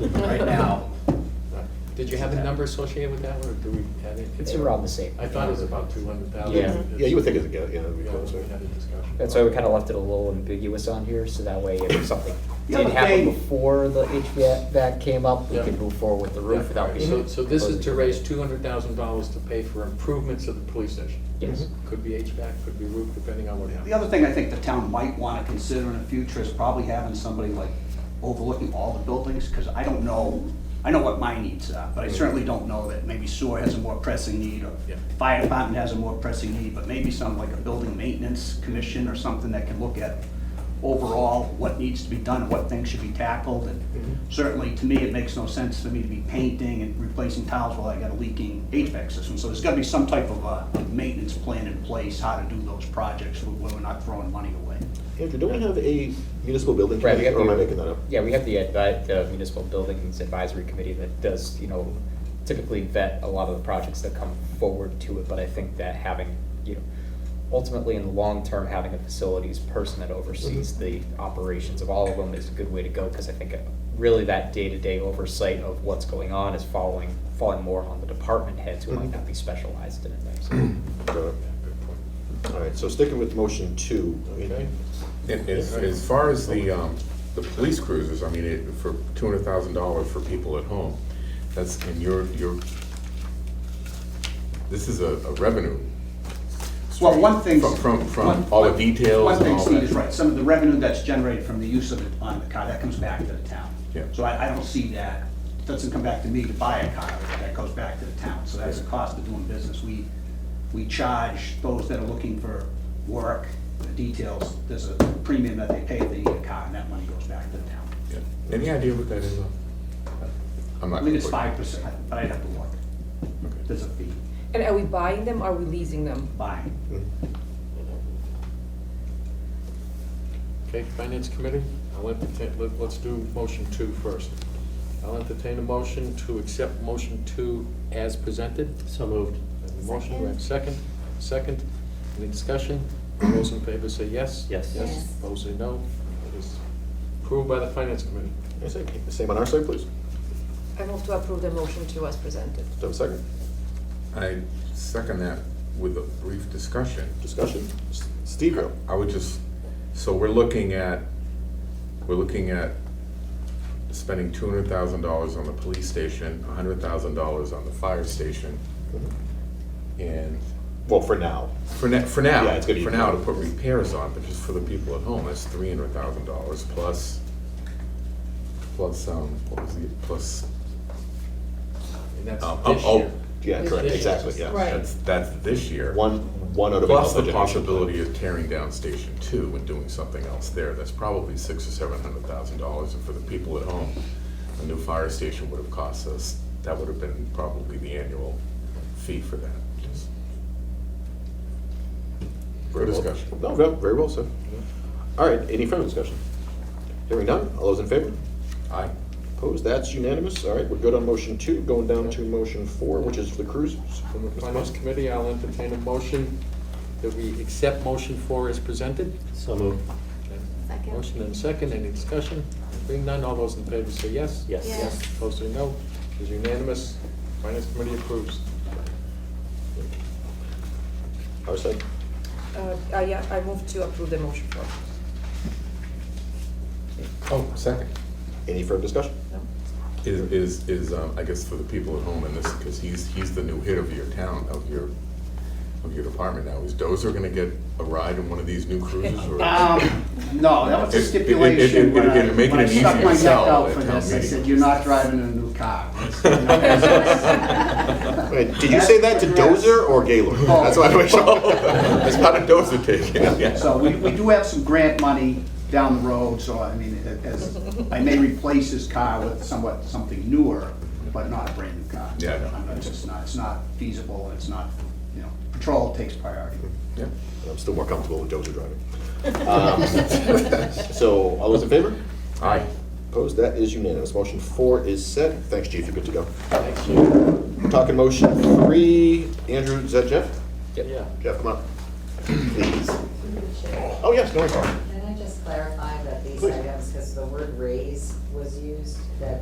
right now. Did you have a number associated with that, or do we have it? It's around the same. I thought it was about two hundred thousand. Yeah. Yeah, you would think it's a, go- yeah, it'd be Yeah, we closer. had a discussion. That's why we kind of left it a little ambiguous on here, so that way if something The did other happen thing- before the HVAC came up, we Yeah. could move forward with the Yeah, roof without right. being. So, so this is to completely- raise two hundred thousand dollars to pay for improvements of the police station. Yes. Could be HVAC, could be roof, depending on what The happens. other thing I think the town might want to consider in the future is probably having somebody like overlooking all the buildings, because I don't know, I know what my needs are, but I certainly don't know that maybe sewer has a more pressing need, or Yeah. fire department has a more pressing need, but maybe some, like a building maintenance commission or something that can look at overall what needs to be done, and what things should be tackled, and certainly, to me, it makes no sense for me to be painting and replacing tiles while I got a leaking HVAC system, so there's gotta be some type of uh maintenance plan in place, how to do those projects, where we're not throwing money away. Andrew, don't we have a municipal building Right, we committee, have or am I the- making that up? Yeah, we have the advi- the municipal buildings advisory committee that does, you know, typically vet a lot of the projects that come forward to it, but I think that having, you know, ultimately in the long term, having a facilities person that oversees the operations of all of them is a good way to go, because I think uh, really that day-to-day oversight of what's going on is following, falling more on the department heads who might Mhm. not be specialized in it. Got Yeah, good point. it. All right, so sticking with motion two, I mean, Okay. And as, as far as the, um, the police cruisers, I mean, it, for two hundred thousand dollars for people at home, that's, and you're, you're, this is a, a revenue. Well, one thing. From, from, from all the details One and thing all Steve is that. right, some of the revenue that's generated from the use of it on the car, that comes back to the town. Yeah. So I, I don't see that, it doesn't come back to me to buy a car, that goes back to the town, so that's the cost of doing business. We, we charge those that are looking for work, the details, there's a premium that they pay if they need a car, and that money goes back to the town. Yeah. Any idea what that is? uh? I'm I not. believe it's gonna five percent, but I'd have to look, put- okay. there's a fee, And are we buying them, are we leasing them? buying. Okay, Finance Committee, I'll entertain, let- let's do motion two first. I'll entertain a motion to accept motion two as presented. So moved. Motion, do I have a second, second, any discussion? All Those in favor say yes? Yes. Yes, Yes. opposed say no. It is approved by the Finance Committee. I say, keep the same on our side, please. Do I move to approve the motion to as presented. I have a second? I second that with a brief discussion. Discussion? S- Steve, go. I would just, so we're looking at, we're looking at spending two hundred thousand dollars on the police station, a hundred thousand dollars on the fire station, and well, for now. for now, for now, Yeah, it's gonna be- for now, to put repairs on, but just for the people at home, that's three hundred thousand dollars plus, plus, um, what was the, plus, And that's um, this oh, year. Yeah, With correct, this. exactly, yeah. Right. that's, that's this year. One, one out of. Plus the another generation. possibility of tearing down Station Two and doing something else there, that's probably six or seven hundred thousand dollars, and for the people at home, a new fire station would have cost us, that would have been probably the annual fee for that. Just- For Very well- discussion. No, ve- very well said. All right, any further discussion? Hearing none, all those in favor? Aye. Opposed, that's unanimous. All right, we're good on motion two, going down to motion four, which is for the cruisers. From the Finance Committee, I'll entertain a motion that we accept motion four as presented. So moved. Second. Motion and second, any discussion? Being none, all those in favor say yes? Yes. Yes. Opposed say no. It is unanimous. Finance Committee approves. Our side? Uh, I, yeah, I move to approve the motion for. Oh, second. Any further discussion? Is, is, is, um, I guess for the people at home, and this, because he's, he's the new hit of your town, of your, of your department now, is Dozer gonna get a ride in one of these new cruisers? or- Um, no, that was It- a it- it- stipulation it- when I, it'd make it when I an stuck easier my neck sell out at for town this, I meeting. said, you're not driving a new car. Wait, did you say that to Dozer or Gaylord? Oh. That's what I "Oh, wish. It's not a Dozer take, yeah. So we, we do have some grant money down the road, so I mean, it- as, I may replace this car with somewhat, something newer, but not a brand new car. Yeah, I know. I mean, It's just not, it's not feasible, and it's not, you know, patrol takes priority. Yeah. I'm still more comfortable with Dozer driving. Um, So, all those in favor? Aye. Opposed, that is unanimous. Motion four is set. Thanks, chief, you're good to go. Thank you. Talking motion three, Andrew, is that Jeff? Yeah. Jeff, come up. Please. Oh, yes, no, I'm sorry. Can I just clarify that these Please. items, because the word raise was used, that